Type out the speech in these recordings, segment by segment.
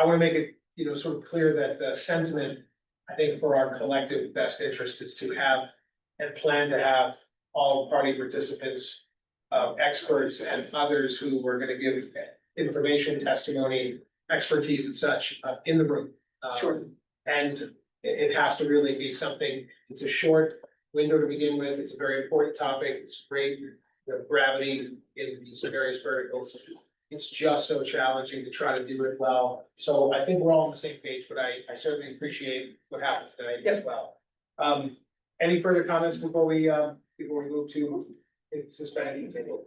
I wanna make it, you know, sort of clear that the sentiment, I think for our collective best interest is to have. And plan to have all party participants, uh, experts and others who were gonna give information, testimony. Expertise and such, uh, in the room. Um, Sure. And it, it has to really be something, it's a short window to begin with, it's a very important topic, it's great. The gravity in these various verticals, it's just so challenging to try to do it well. So I think we're all on the same page, but I, I certainly appreciate what happened tonight as well. Um, any further comments before we, um, before we move to suspending? All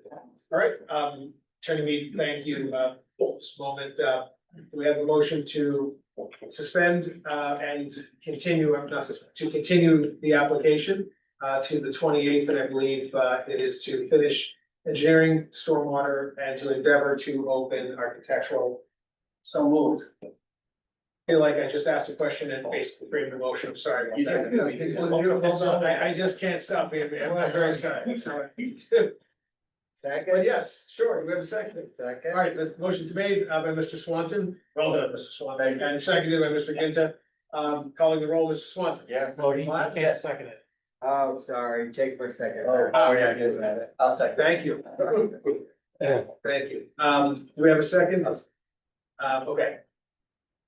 right, um, Attorney Mead, thank you, uh, for this moment, uh, do we have a motion to suspend, uh, and continue, uh, not suspend, to continue the application uh, to the twenty eighth, and I believe, uh, it is to finish engineering, stormwater, and to endeavor to open architectural. So moved. Feel like I just asked a question and basically framed the motion, I'm sorry You about did. No, you that. did. Hold on, hold on, I, I just can't stop, being- I'm very sorry, sorry. But Second? yes, sure, we have a second. All Second. right, the motion's made uh, by Mr. Swanton, well done, Mr. Swanton, Thank you. and seconded by Mr. Ginta, um, calling the roll, Mr. Swanton. Yes. No, you you can't second it. Oh, sorry, take for a second. Oh, oh, yeah, yes, that's I'll second. Ah. Thank you. Thank you. Um, do we have a second? Uh, okay.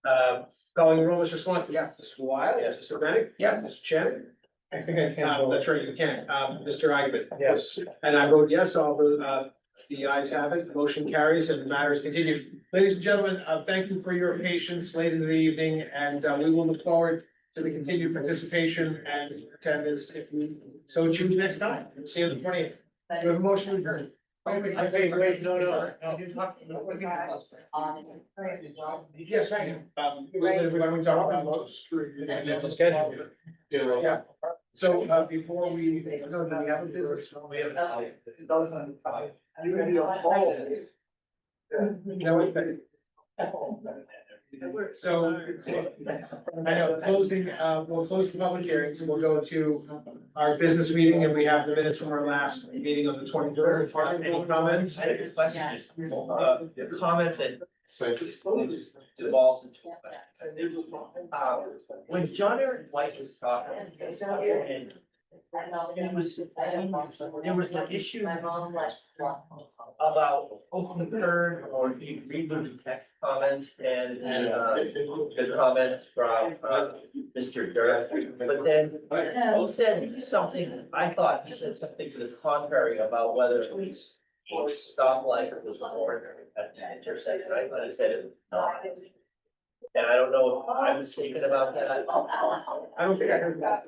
Uh, calling the roll, Mr. Swanton. Yes. Mr. Wild. Yes. Mr. Bennett. Yes. Mr. Shannon. I think I Um, that's right, you can. Um, Mr. Agnew. Yes. And I vote yes, all the, uh, the ayes have it, motion carries and the matter is continued. Ladies and gentlemen, uh, thank you for your patience late in the evening and, uh, we will look forward to the continued participation and attendance if we so choose next time. See you on the twentieth. Do you have a motion to adjourn? I think, wait, no, no, no. Yes, I do. Um, we- we- we're going to talk about those. And there's a schedule. Yeah. So, uh, before we, no, do we have a business? We have- You know what? So, I know, closing, uh, we'll close the public hearings, we'll go to our business meeting, and we have the minutes from our last meeting on the twenty third. Any comments? I had a question, uh, the comment that devolved into a question. Uh, when John Aaron White was talking, and it was, there was an issue about open turn or if you read the text comments and, and, uh, the comments from, uh, Mr. Durf. But then, he said something, I thought he said something to the contrary about whether it was or stoplight was warned at the intersection, I thought he said it was not. And I don't know if I'm mistaken about that. I don't think I heard that.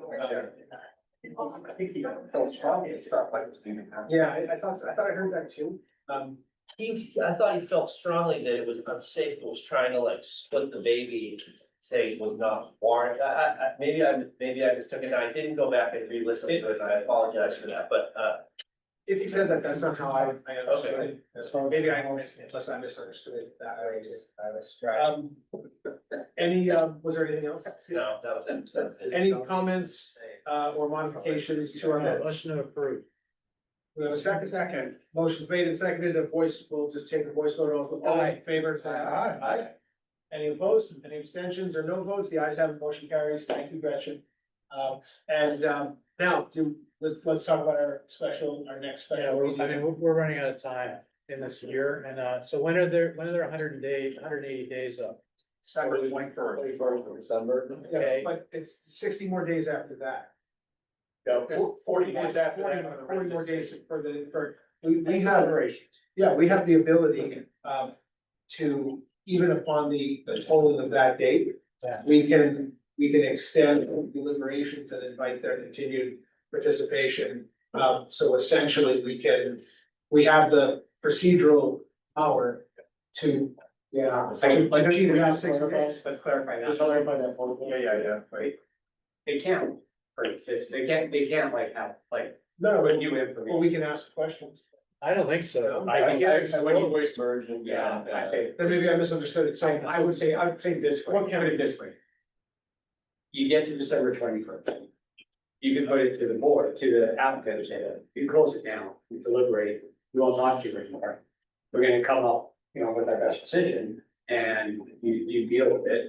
I think he felt strongly and stuff like. Yeah, I, I thought, I thought I heard that too. Um, He, I thought he felt strongly that it was unsafe, was trying to like split the baby, say it was not warranted. I, I, I, maybe I, maybe I mistook it, I didn't go back and re-listen to it, and I apologize for that, but, uh, if you said that, that's not how I, I understood it. So maybe I, unless I misunderstood it that way. I was trying. Um, any, um, was there anything else? no, that was. that was- Any comments, uh, or modifications to our minutes? Motion approved. We have a second. Second. Motion's made and seconded, a voice, we'll just take a voice vote off, all in favor, say aye. Aye. Any opposed, any abstentions or no votes, the ayes have it, motion carries, thank you, Gretchen. Um, and, um, now, do, let's, let's talk about our special, our next Yeah, special we're, I meeting. mean, we're, we're running out of time in this year, and, uh, so when are there, when are there hundred and day, hundred and eighty days up? December Twenty-first of December. Yeah, Okay. but it's sixty more days after that. Forty days after Forty- that. Forty more days for the, for, we, we have, yeah, we have the ability, um, to, even upon the, the tolling of that date. Yeah. We can, we can extend deliberations and invite their continued participation. Um, so essentially, we can, we have the procedural power to. Yeah. To, to achieve around six days. Let's clarify that. Just that Yeah, yeah, yeah, right. They can't, right, it's- they can't, they can't like have, like, No, put but new well, information. we can ask questions. I don't think so. No. I think version. Yeah, I say, Then maybe I misunderstood it, so so. I would say, I would say this way, What put can we- it this way. You get to December twenty first. You can put it to the board, to the applicant, and say, you close it down, you deliberate, you will not do it anymore. We're gonna come up, you know, with our best decision, And you, you deal with it.